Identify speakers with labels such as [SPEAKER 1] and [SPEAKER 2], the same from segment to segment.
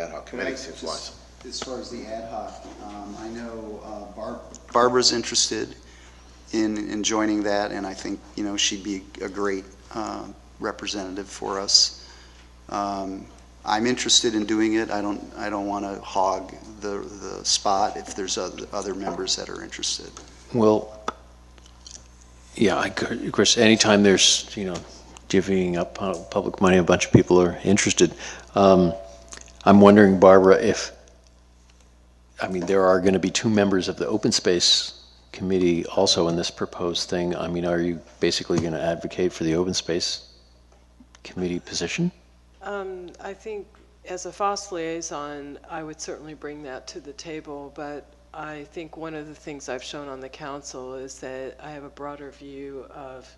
[SPEAKER 1] ad hoc committees if
[SPEAKER 2] Just
[SPEAKER 1] lots.
[SPEAKER 2] As far as the ad hoc, um, I know uh, Barb. Barbara's interested in, in joining that, and I think, you know, she'd be a great uh, representative for us. Um, I'm interested in doing it. I don't, I don't want to hog the, the spot if there's oth- other members that are interested.
[SPEAKER 3] Well, yeah, I could, of course, anytime there's, you know, divvying up pu- public money, a bunch of people are interested. Um, I'm wondering, Barbara, if, I mean, there are going to be two members of the Open Space Committee also in this proposed thing. I mean, are you basically going to advocate for the Open Space Committee position?
[SPEAKER 4] Um, I think as a FOSS liaison, I would certainly bring that to the table, but I think one of the things I've shown on the council is that I have a broader view of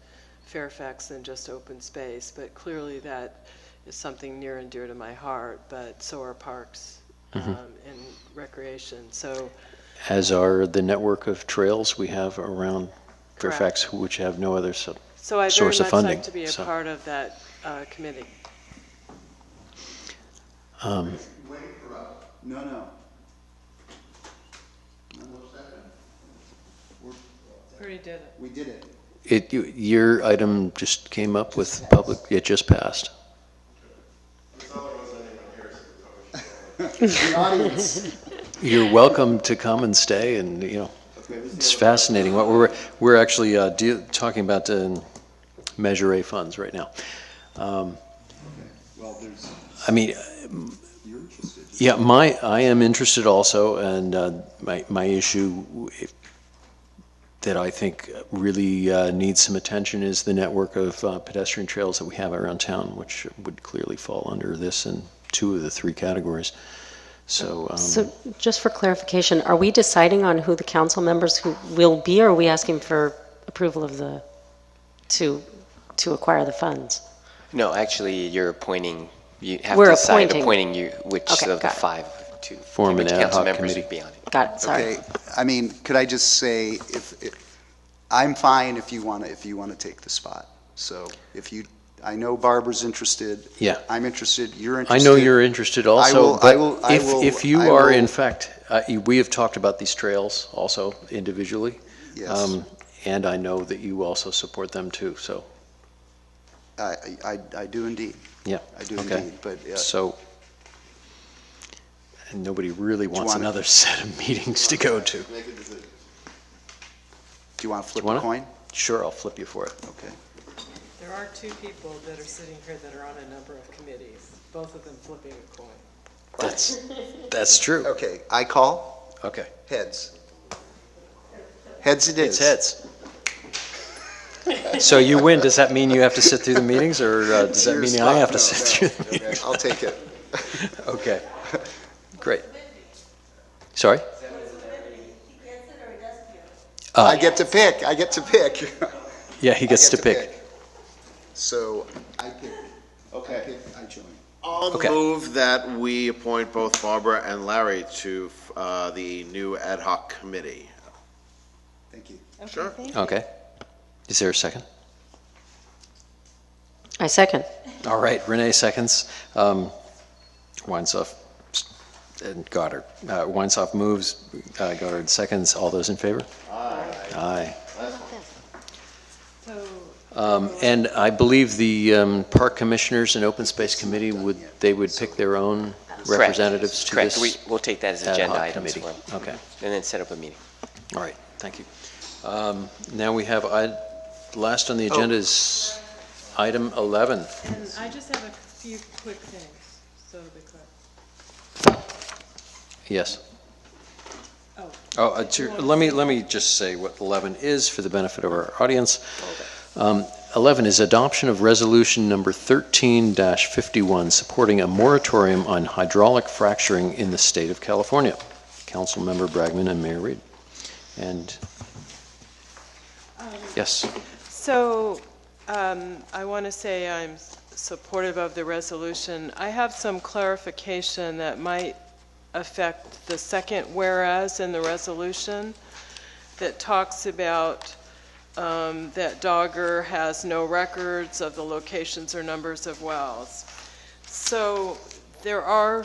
[SPEAKER 4] Fairfax than just open space, but clearly that is something near and dear to my heart, but so are parks
[SPEAKER 3] Mm-hmm.
[SPEAKER 4] um, and recreation. So
[SPEAKER 3] As are the network of trails we have around Fairfax, which have no other sub,
[SPEAKER 4] so I'd very
[SPEAKER 3] Source of
[SPEAKER 4] much
[SPEAKER 3] funding,
[SPEAKER 4] like to be a
[SPEAKER 3] so.
[SPEAKER 4] part of that uh, committee.
[SPEAKER 3] um,
[SPEAKER 2] No, no.
[SPEAKER 4] Already did it.
[SPEAKER 2] We did it.
[SPEAKER 3] It, you- your item just came up with public, it just passed.
[SPEAKER 2] The audience.
[SPEAKER 3] You're welcome to come and stay and, you know, it's fascinating. What we're, we're actually uh, deal- talking about um, Measure A funds right now. Um,
[SPEAKER 2] Well, there's,
[SPEAKER 3] I mean,
[SPEAKER 2] you're interested.
[SPEAKER 3] yeah, my, I am interested also, and uh, my, my issue if- that I think really uh, needs some attention is the network of uh, pedestrian trails that we have around town, which would clearly fall under this in two of the three categories. So, um,
[SPEAKER 5] So just for clarification, are we deciding on who the council members who will be, or are we asking for approval of the, to, to acquire the funds?
[SPEAKER 6] No, actually, you're appointing, you have
[SPEAKER 5] We're
[SPEAKER 6] to decide
[SPEAKER 5] appointing.
[SPEAKER 6] appointing you, which
[SPEAKER 5] Okay,
[SPEAKER 6] of the
[SPEAKER 5] got it.
[SPEAKER 6] five to,
[SPEAKER 3] Form
[SPEAKER 6] which
[SPEAKER 3] an ad
[SPEAKER 6] council
[SPEAKER 3] hoc
[SPEAKER 6] members
[SPEAKER 3] committee.
[SPEAKER 6] would be on it.
[SPEAKER 5] Got it, sorry.
[SPEAKER 2] Okay, I mean, could I just say, if, if- I'm fine if you want to, if you want to take the spot. So if you, I know Barbara's interested.
[SPEAKER 3] Yeah.
[SPEAKER 2] I'm interested, you're
[SPEAKER 3] I
[SPEAKER 2] interested.
[SPEAKER 3] know you're interested also.
[SPEAKER 2] will- I
[SPEAKER 3] but
[SPEAKER 2] will- I
[SPEAKER 3] if-
[SPEAKER 2] will-
[SPEAKER 3] If you
[SPEAKER 2] I
[SPEAKER 3] are,
[SPEAKER 2] will-
[SPEAKER 3] in fact, uh, you- we have talked about these trails also individually.
[SPEAKER 2] Yes,
[SPEAKER 3] um, And I know that you also support them too, so,
[SPEAKER 2] I, I, I do indeed,
[SPEAKER 3] yeah.
[SPEAKER 2] I do
[SPEAKER 3] okay.
[SPEAKER 2] indeed, but uh,
[SPEAKER 3] So, and nobody really wants
[SPEAKER 2] wanna-
[SPEAKER 3] another set of meetings to go to.
[SPEAKER 2] do you want to flip a
[SPEAKER 3] Wanna?
[SPEAKER 2] coin?
[SPEAKER 3] Sure, I'll flip you for it.
[SPEAKER 2] Okay.
[SPEAKER 4] There are two people that are sitting here that are on a number of committees, both of them flipping a coin.
[SPEAKER 3] That's, that's true.
[SPEAKER 2] Okay, I call,
[SPEAKER 3] Okay.
[SPEAKER 2] heads. Heads it
[SPEAKER 3] It's
[SPEAKER 2] is.
[SPEAKER 3] heads. So you win, does that mean you have to sit through the meetings, or uh, does that
[SPEAKER 2] Your
[SPEAKER 3] mean
[SPEAKER 2] spot.
[SPEAKER 3] I have
[SPEAKER 2] No,
[SPEAKER 3] to sit
[SPEAKER 2] no.
[SPEAKER 3] through the meetings?
[SPEAKER 2] I'll take it.
[SPEAKER 3] Okay, great. Sorry?
[SPEAKER 2] I get to pick, I get to pick.
[SPEAKER 3] Yeah, he gets to pick.
[SPEAKER 2] So I pick, I pick, I join.
[SPEAKER 1] I'll
[SPEAKER 3] Okay.
[SPEAKER 1] move that we appoint both Barbara and Larry to uh, the new ad hoc committee.
[SPEAKER 2] Thank you.
[SPEAKER 1] Sure.
[SPEAKER 3] Okay. Is there a second?
[SPEAKER 5] I second.
[SPEAKER 3] All right, Renee seconds. Um, Weinsoff and Goddard. Uh, Weinsoff moves, uh, Goddard seconds. All those in favor? Aye.
[SPEAKER 4] So
[SPEAKER 3] Um, and I believe the um, park commissioners and open space committee would, they would pick their own
[SPEAKER 6] Correct.
[SPEAKER 3] representatives to
[SPEAKER 6] Correct, we,
[SPEAKER 3] this
[SPEAKER 6] we'll take that as
[SPEAKER 3] ad
[SPEAKER 6] agenda
[SPEAKER 3] hoc
[SPEAKER 6] items,
[SPEAKER 3] committee.
[SPEAKER 6] when-
[SPEAKER 3] Okay.
[SPEAKER 6] and then set up a meeting.
[SPEAKER 3] All right, thank you. Um, Now we have, I- last on the agenda is item 11.
[SPEAKER 4] And I just have a few quick things, so the clerk.
[SPEAKER 3] Yes.
[SPEAKER 4] Oh.
[SPEAKER 3] Oh, uh, to- let me, let me just say what 11 is for the benefit of our audience. Um, 11 is adoption of resolution number 13-51, supporting a moratorium on hydraulic fracturing in the state of California. Councilmember Bragman and Mayor Reed. And, yes.
[SPEAKER 4] So um, I want to say I'm s- supportive of the resolution. I have some clarification that might affect the second whereas in the resolution that talks about um, that Dogger has no records of the locations or numbers of wells. So there are